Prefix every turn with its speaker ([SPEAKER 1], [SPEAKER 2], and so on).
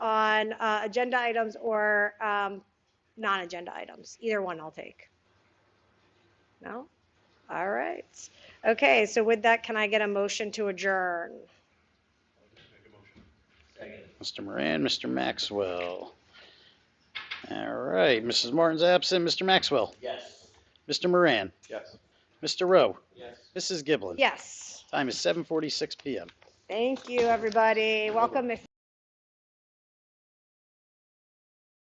[SPEAKER 1] on uh, agenda items or um, non-agenda items. Either one I'll take. No? All right. Okay, so with that, can I get a motion to adjourn?
[SPEAKER 2] Mr. Moran, Mr. Maxwell. All right, Mrs. Martin's absent, Mr. Maxwell,
[SPEAKER 3] Yes.
[SPEAKER 2] Mr. Moran,
[SPEAKER 3] Yes.
[SPEAKER 2] Mr. Rowe,
[SPEAKER 3] Yes.
[SPEAKER 2] Mrs. Giblin.
[SPEAKER 1] Yes.
[SPEAKER 2] Time is 7:46 PM.
[SPEAKER 1] Thank you, everybody. Welcome if